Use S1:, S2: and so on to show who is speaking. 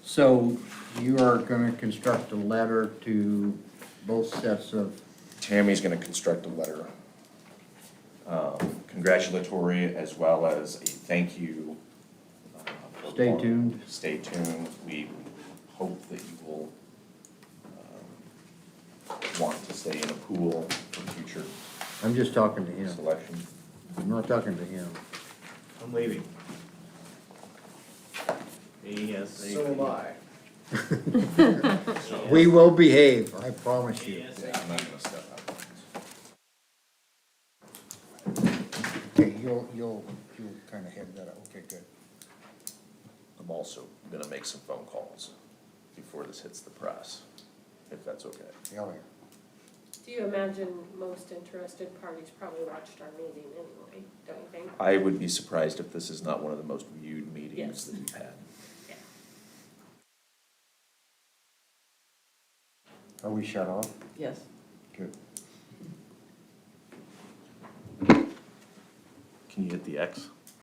S1: So you are gonna construct a ladder to both sets of,
S2: Tammy's gonna construct a letter. um, Congratulatory as well as a thank you. um,
S1: Stay tuned.
S2: Stay tuned. We hope that you will um, want to stay in a pool for future
S1: I'm just talking to him,
S2: selection.
S1: I'm not talking to him.
S3: I'm leaving. He has.
S4: So am I.
S1: We will behave, I promise you.
S3: Yes.
S2: Yeah, I'm not gonna step out.
S1: Okay, you'll, you'll, you'll kinda head that up, okay, good.
S2: I'm also gonna make some phone calls before this hits the press, if that's okay.
S1: Yeah, yeah.
S5: Do you imagine most interested parties probably watched our meeting anyway, don't you think?
S2: I would be surprised if this is not one of the most viewed meetings
S5: Yes.
S2: that we've had.
S1: Are we shut off?
S6: Yes.
S1: Good.
S2: Can you hit the X?